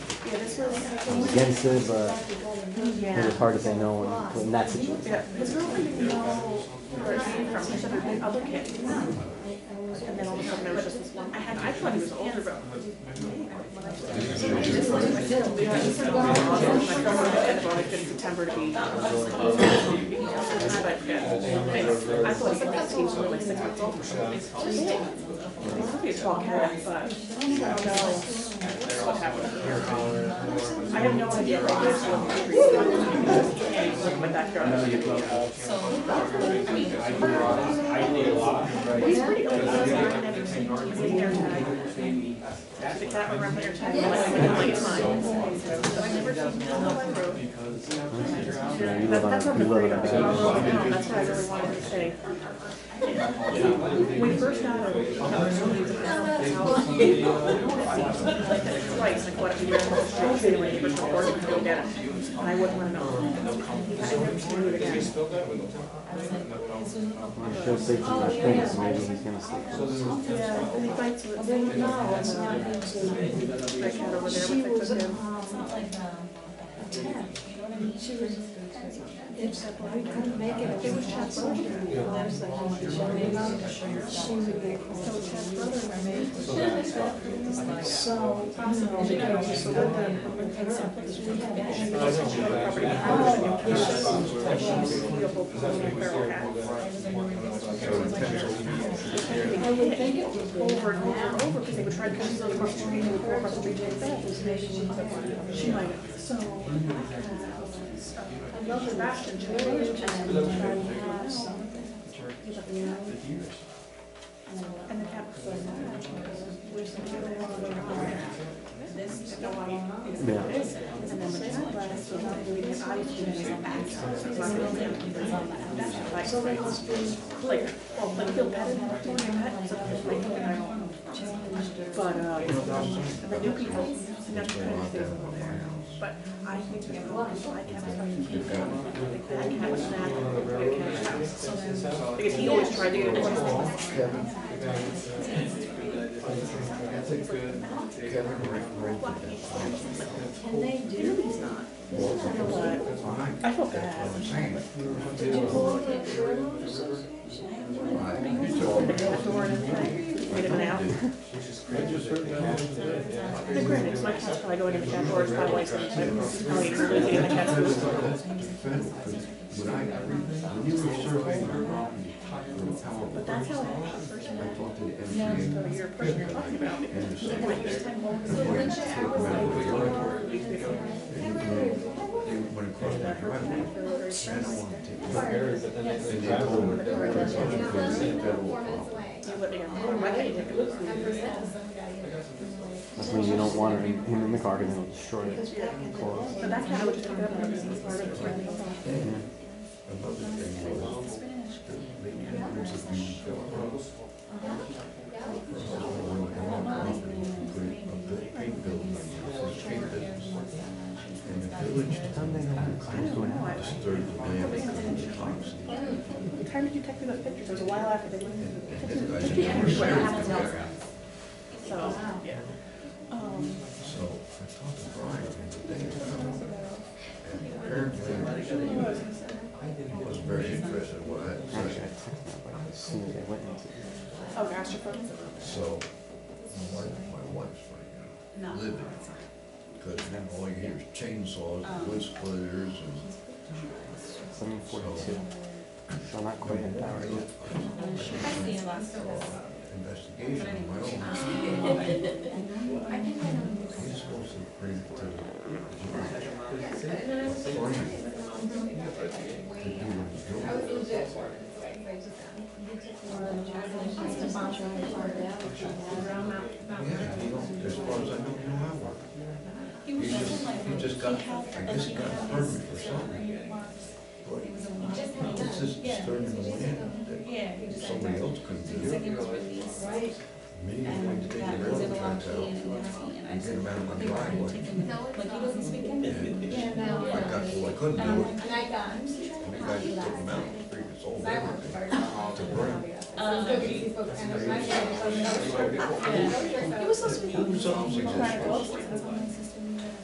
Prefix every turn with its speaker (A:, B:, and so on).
A: Yeah, this was.
B: against it, but it was
A: Yeah.
B: hard to say no in, in that situation.
A: Yeah, his girlfriend didn't know where it came from, he said there'd been other kids. And then all of a sudden, there was just this one, I had, I thought he was older, but. This was my kid, we had- this is one of my girlfriend's kid, bought a kid in September to be. But, yeah, I thought he was like, he was only like six months old. or something. He's pretty tall cat, but I don't know what happened. I have no idea. what this one- My backyard. He's pretty old. He's in there tonight. The cat went around there trying to like, like, mine. So I never seen him on my road.
B: Yeah, you
A: That-
B: live on
A: That's
B: a- you
A: what I'm afraid
B: live on a-
A: of. because I'll love him. That's what I really wanted to say. When we first got her, we told her somebody was Like, twice, like, what, we were in the street, they were able to work and go get him. And I wouldn't want to know. I never seen it again.
B: I'm sure safety's not thing, so maybe he's gonna sleep.
A: Yeah, and he bites with. No, it's not. That cat over there, which I took him. I would think it was over and over and over, because they would try to come to across the street and go across the street and back. She might have, so. I love her back and she was And the cat was like, where's the cat? This, no, I don't know.
B: Yeah.
A: And then the cat left, and I believe his eyes were in his back. So it must be. Like, well, like he'll pet him, like, pet him, so he's like, and I don't know. But, uh, the new people, never kind of stays over there. But I think we have a lot of black cats, I keep them. Like, that cat was mad at the big cat's house. So then- Because he always tried to get it. Really, he's not. But I feel bad. Wait a minute out. The granite, my cat's probably going in the cat door, it's probably like, probably losing in the cat's food. But that's how I first met. So you're a person you're talking about. You would, you know, why can't you take a look?
B: That's when you don't want her in- him in the car, cause it'll destroy it.
A: But that's how I would just go about it. It's part of it. The time did you take me those pictures? It was a while after they went. So, yeah. Um,
C: was very interested in what I
B: Actually, I texted her, but as soon as I went into it.
A: oh, gosh, your phone.
C: So, my wife, my wife's like, uh, livid, because all you hear is chainsaws, wood splitters, and
B: Seven forty-two. So not quite an hour yet.
C: investigation of my own. He's supposed to bring it to the jury. To do what he's doing. Yeah, as far as I know, you don't have one. He just, he just got, I guess he got a permit or something. But it's just disturbing the wind that somebody else couldn't do. it. Me, I'm going to take the railroad tracks out and get them out of my driveway. And I got, well, I couldn't do it. And the guy just took them out and figured it's all everything to burn.
A: It was so sweet.
C: Who solves it?
A: Right, well, it's-